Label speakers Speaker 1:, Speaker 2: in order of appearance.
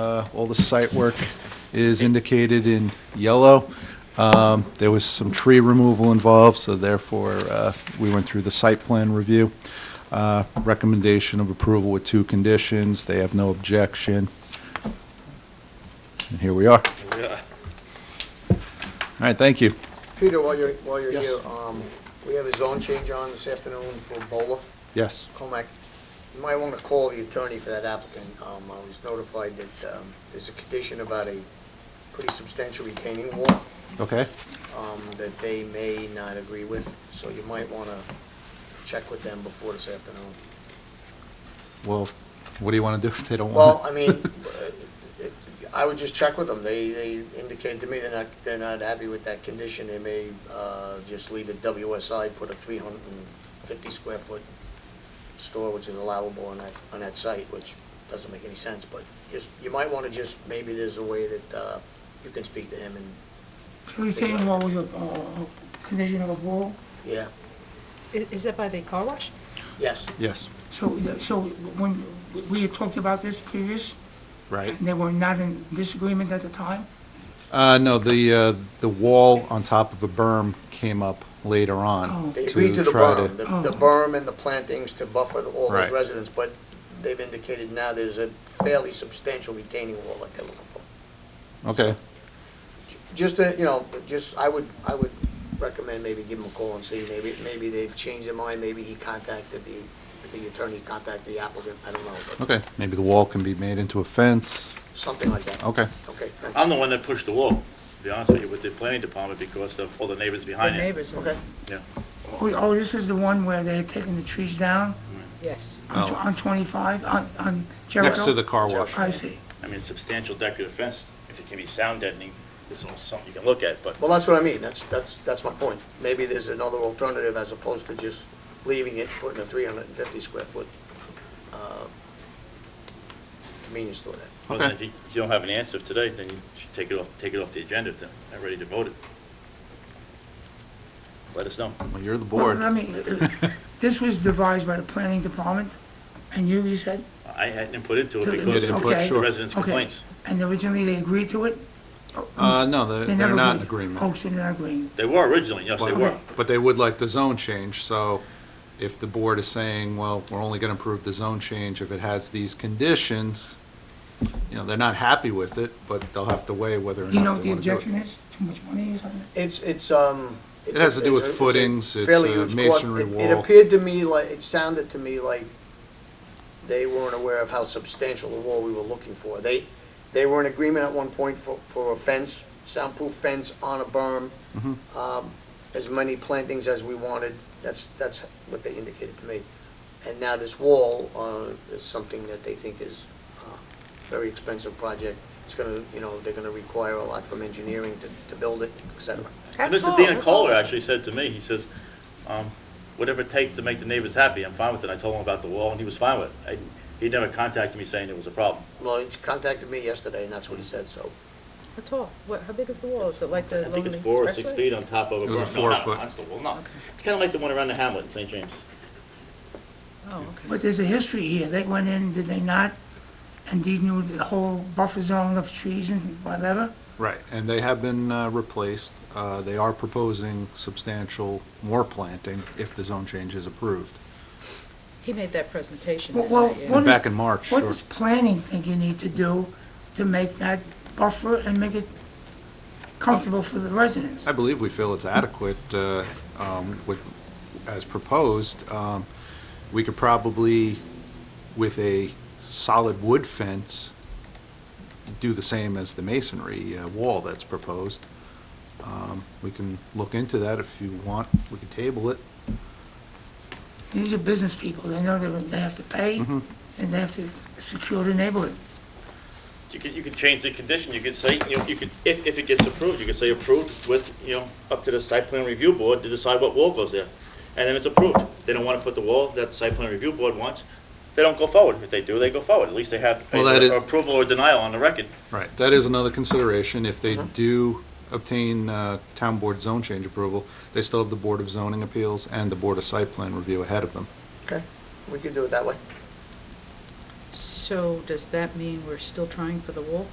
Speaker 1: Uh, All the site work is indicated in yellow. Um, There was some tree removal involved, so therefore, uh, we went through the site plan review. Uh, Recommendation of approval with two conditions. They have no objection. And here we are. All right, thank you.
Speaker 2: Peter, while you're, while you're
Speaker 1: Yes.
Speaker 2: here, um, we have a zone change on this afternoon for Bola,
Speaker 1: Yes.
Speaker 2: Comac. You might want to call the attorney for that applicant. Um, I was notified that, um, there's a condition about a pretty substantial retaining wall,
Speaker 1: Okay.
Speaker 2: um, that they may not agree with, so you might want to check with them before this afternoon.
Speaker 1: Well, what do you want to do if they don't want
Speaker 2: Well,
Speaker 1: it?
Speaker 2: I mean, uh, it- I would just check with them. They, they indicated to me they're not, they're not happy with that condition. They may uh, just leave it WSI, put a 350 square foot store, which is allowable on that, on that site, which doesn't make any sense, but just, you might want to just, maybe there's a way that uh, you can speak to him and,
Speaker 3: Retaining wall was a, uh, condition of a wall,
Speaker 2: yeah,
Speaker 4: I- Is that by the car wash?
Speaker 2: yes.
Speaker 1: Yes,
Speaker 3: so, uh, so when, we had talked about this previous,
Speaker 1: right.
Speaker 3: and they were not in disagreement at the time?
Speaker 1: Uh, no, the, uh, the wall on top of a berm came up later on.
Speaker 3: Oh.
Speaker 2: They agreed to the
Speaker 1: try
Speaker 2: berm, the the
Speaker 3: Oh.
Speaker 2: berm and the plantings to buffer the- all those
Speaker 1: Right.
Speaker 2: residents, but they've indicated now there's a fairly substantial retaining wall like they're looking for.
Speaker 1: Okay,
Speaker 2: Just, to, you know, just, I would, I would recommend maybe give him a call and see, maybe, maybe they've changed their mind, maybe he contacted the, the attorney contacted the applicant, I don't know, but
Speaker 1: okay. Maybe the wall can be made into a fence.
Speaker 2: something like that.
Speaker 1: Okay.
Speaker 2: Okay, thanks.
Speaker 5: I'm the one that pushed the wall, to be honest with you, with the planning department because of all the neighbors
Speaker 4: The
Speaker 5: behind it.
Speaker 4: neighbors, are-
Speaker 2: Okay,
Speaker 3: Oh, oh, this is the one where they had taken the trees down
Speaker 4: yes.
Speaker 3: on tw-
Speaker 1: Oh.
Speaker 3: on twenty-five, on, on Jericho?
Speaker 1: Next to the car wash.
Speaker 3: I see.
Speaker 5: I mean, substantial decorative fence, if it can be sound deadening, this is also something you can look at, but
Speaker 2: well, that's what I mean, that's, that's, that's my point. Maybe there's another alternative as opposed to just leaving it, putting a three hundred and fifty square foot, uh, convenience store there.
Speaker 5: but then if you if you don't have an answer today, then you should take it off, take it off the agenda if they're not ready to vote it. Let us know.
Speaker 1: Well, you're the
Speaker 3: Well,
Speaker 1: board.
Speaker 3: I mean, uh, this was devised by the planning department, and you, you said,
Speaker 5: I had input into it
Speaker 3: You
Speaker 5: because
Speaker 1: didn't
Speaker 5: of
Speaker 1: put- Okay.
Speaker 5: the residents'
Speaker 3: Okay.
Speaker 5: complaints.
Speaker 3: and originally they agreed to it?
Speaker 1: Uh, no, they're,
Speaker 3: They
Speaker 1: they're
Speaker 3: never
Speaker 1: not in
Speaker 3: Oh,
Speaker 1: agreement.
Speaker 3: so they're not agreeing.
Speaker 5: They were originally, yes, they were.
Speaker 1: But but they would like the zone change, so if the board is saying, well, we're only gonna approve the zone change if it has these conditions, you know, they're not happy with it, but they'll have to weigh whether or
Speaker 3: You
Speaker 1: not
Speaker 3: know what
Speaker 1: they
Speaker 3: the
Speaker 1: wanna do it.
Speaker 3: objection is? Too much money or something?
Speaker 2: It's, it's, um.
Speaker 1: It
Speaker 2: it's a-
Speaker 1: has to do with
Speaker 2: it's a- it's a
Speaker 1: footings, it's
Speaker 2: fairly
Speaker 1: a
Speaker 2: huge cost.
Speaker 1: masonry
Speaker 2: It- It
Speaker 1: wall.
Speaker 2: appeared to me like, it sounded to me like they weren't aware of how substantial the wall we were looking for. They, they were in agreement at one point for, for a fence, soundproof fence on a berm,
Speaker 1: Mhm.
Speaker 2: um, as many plantings as we wanted. That's, that's what they indicated to me. And now this wall, uh, is something that they think is, uh, very expensive project. It's gonna, you know, they're gonna require a lot from engineering to, to build it, et cetera.
Speaker 4: How
Speaker 5: And Mr.
Speaker 4: tall-
Speaker 5: Dana
Speaker 4: how tall
Speaker 5: Kohler
Speaker 4: is it?
Speaker 5: actually said to me, he says, um, whatever it takes to make the neighbors happy, I'm fine with it. I told him about the wall, and he was fine with it. I- He never contacted me saying there was a problem.
Speaker 2: Well, he contacted me yesterday, and that's what he said, so.
Speaker 4: How tall? What, how big is the wall? Is it like
Speaker 5: I
Speaker 4: the
Speaker 5: think
Speaker 4: Lonely
Speaker 5: it's four or six
Speaker 4: Expressway?
Speaker 5: feet on top of a berm.
Speaker 1: It was a
Speaker 5: No, not
Speaker 1: four-foot.
Speaker 5: that's the wall, no. It's kind of like the one around the hamlet in St. James.
Speaker 4: Oh, okay.
Speaker 3: But there's a history here. They went in, did they not? And they knew the whole buffer zone of trees and whatever?
Speaker 1: Right, and they have been uh, replaced. Uh, They are proposing substantial more planting if the zone change is approved.
Speaker 4: He made that presentation.
Speaker 3: Well,
Speaker 4: that
Speaker 3: well,
Speaker 4: night, yeah.
Speaker 3: what is-
Speaker 1: Back in March,
Speaker 3: What
Speaker 1: sure.
Speaker 3: does planning think you need to do to make that buffer and make it comfortable for the residents?
Speaker 1: I believe we feel it's adequate uh, um, with- as proposed. Um, We could probably, with a solid wood fence, do the same as the masonry uh, wall that's proposed. Um, We can look into that if you want. We can table it.
Speaker 3: These are business people. They know they they have to pay,
Speaker 1: Mm-hmm.
Speaker 3: and they have to secure the neighborhood.
Speaker 5: So You could, you could change the condition, you could say, you know, you could, if, if it gets approved, you could say approved with, you know, up to the site plan review board to decide what wall goes there. And then it's approved. They don't want to put the wall that the site plan review board wants, they don't go forward. If they do, they go forward. At least they have
Speaker 1: Well, that is-
Speaker 5: either approval or denial on the record.
Speaker 1: Right, that is another consideration. If they do obtain uh, town board zone change approval, they still have the Board of Zoning Appeals and the Board of Site Plan Review ahead of them.
Speaker 2: We could do it that way.
Speaker 4: So does that mean we're still trying for the wall?